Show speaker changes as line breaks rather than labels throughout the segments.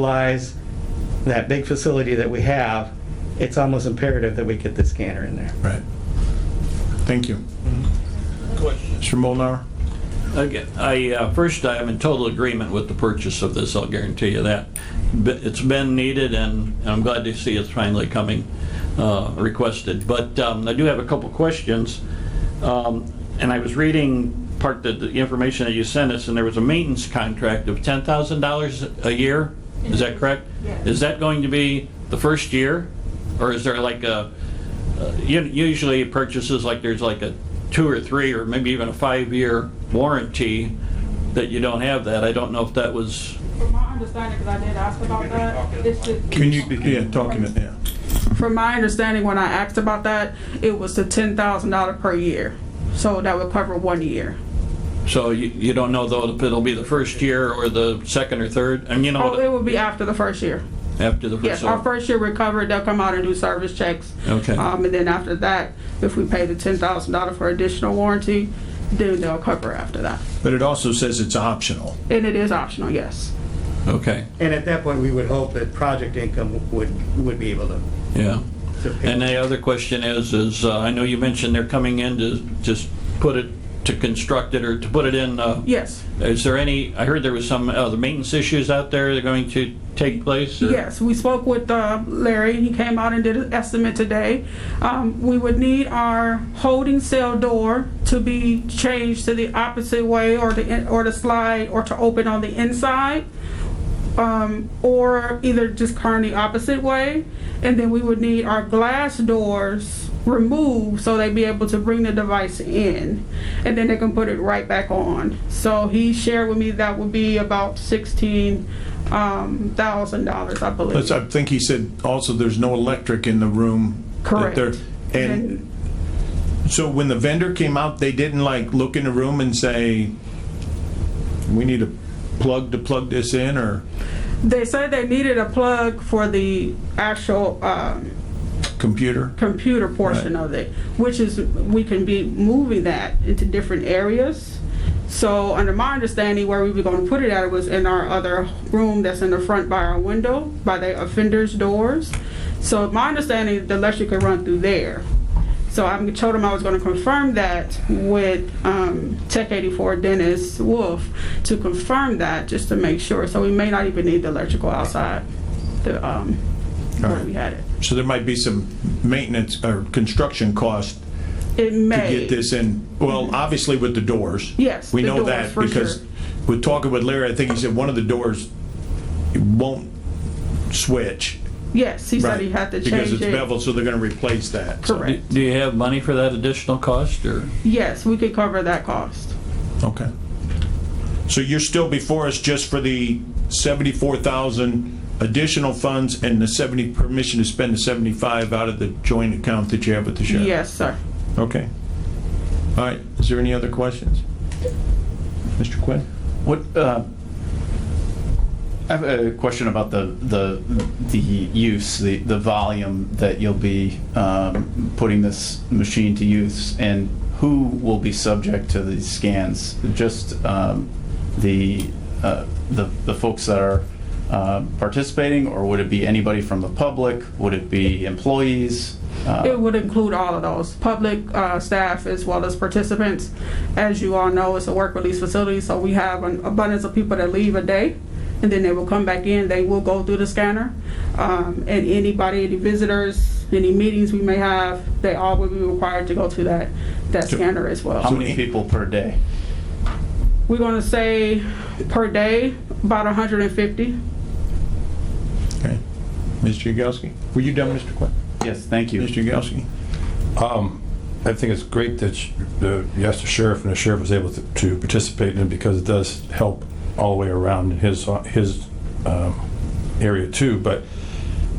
utilize that big facility that we have, it's almost imperative that we get the scanner in there.
Right. Thank you.
Question.
Mr. Molnar?
Again, I, uh, first, I am in total agreement with the purchase of this, I'll guarantee you that. But It's been needed, and I'm glad to see it's finally coming, uh, requested. But um, I do have a couple questions. Um, And I was reading part of the information that you sent us, and there was a maintenance contract of $10,000 a year, is that correct?
Yes.
Is that going to be the first year, or is there like a, uh, u- usually purchases, like there's like a two or three or maybe even a five-year warranty that you don't have that. I don't know if that was,
From my understanding, because I did ask about that, it's just.
Can you, yeah, talking, to- yeah.
From my understanding, when I asked about that, it was the ten thousand dollar per year, so that would cover one year.
so you, you don't know though if it'll be the first year or the second or third, and you
Oh, it
know,
would be after the first year.
after the
Yes,
first.
our first year recovered, they'll come out and do service checks.
Okay.
Um, and then after that, if we pay the ten thousand dollar for additional warranty, then they'll cover after that.
But it also says it's optional.
And it is optional, yes.
Okay,
And at that point, we would hope that project income would, would be able to.
yeah.
to pick-
And the other question is, is uh, I know you mentioned they're coming in to just put it, to construct it or to put it in. uh,
Yes,
Is there any, I heard there was some, uh, the maintenance issues out there that are going to take place? or-
Yes, we spoke with uh, Larry. He came out and did an estimate today. Um, We would need our holding cell door to be changed to the opposite way or the, in- or the slide or to open on the inside. um, Or either just turn the opposite way. And then we would need our glass doors removed so they'd be able to bring the device in. And then they can put it right back on. So he shared with me that would be about sixteen um, thousand dollars, I believe.
That's, I think he said also there's no electric in the room. that
Correct.
they're- And so when the vendor came out, they didn't like look in the room and say, we need a plug to plug this in or
They said they needed a plug for the actual um,
computer?
computer portion
Right.
of it, which is, we can be moving that into different areas. So under my understanding, where we were gonna put it at was in our other room that's in the front by our window, by the offender's doors. So my understanding, the electric could run through there. So I told him I was gonna confirm that with um, Tech 84 Dennis Wolf to confirm that, just to make sure. So we may not even need the electrical outside, the, um, where
Alright.
we had it.
So there might be some maintenance or construction cost
It
to
may.
get this in, well, obviously with the doors.
Yes,
We
the
know
doors,
that
for
because
sure.
we're talking with Larry, I think he said one of the doors won't switch.
Yes, he
right?
said he had to
Because
change
it's
it.
beveled, so they're gonna replace that. so-
Do
Correct.
do you have money for that additional cost, or?
Yes, we could cover that cost.
Okay. So you're still before us just for the 74,000 additional funds and the 70, permission to spend the 75 out of the joint account that you have with the sheriff?
Yes, sir.
Okay. All right, is there any other questions? Mr. Quinn?
What, uh, I have a question about the, the, the use, the, the volume that you'll be um, putting this machine to use, and who will be subject to these scans? Just um, the, uh, the the folks that are uh, participating, or would it be anybody from the public? Would it be employees? Uh,
It would include all of those, public, uh, staff as well as participants. As you all know, it's a work release facility, so we have an abundance of people that leave a day. And then they will come back in, they will go through the scanner. Um, and anybody, any visitors, any meetings we may have, they all will be required to go to that, that scanner as well.
How many people per day?
We're gonna say per day, about hundred and fifty.
Okay. Mr. Yagowski? Were you done, Mr. Quinn?
Yes, thank you.
Mr. Yagowski?
Um, I think it's great that sh- the, yes, the sheriff and the sheriff was able to- to participate in it because it does help all the way around in his, uh, his um, area too, but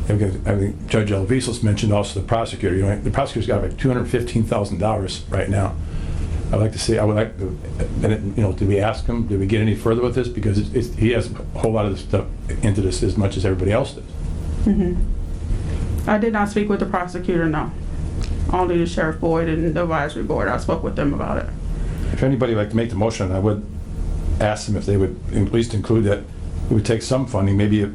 I think- I think Judge Alvisos mentioned also the prosecutor, you know, the prosecutor's got like $215,000 right now. I'd like to see, I would like, to- and, it- you know, did we ask him, did we get any further with this? Because it's- it's, he has a whole lot of stuff into this as much as everybody else does.
I did not speak with the prosecutor, no. Only the sheriff board and the advisory board. I spoke with them about it.
If anybody would like to make the motion, I would ask them if they would at least include that, we would take some funding, maybe a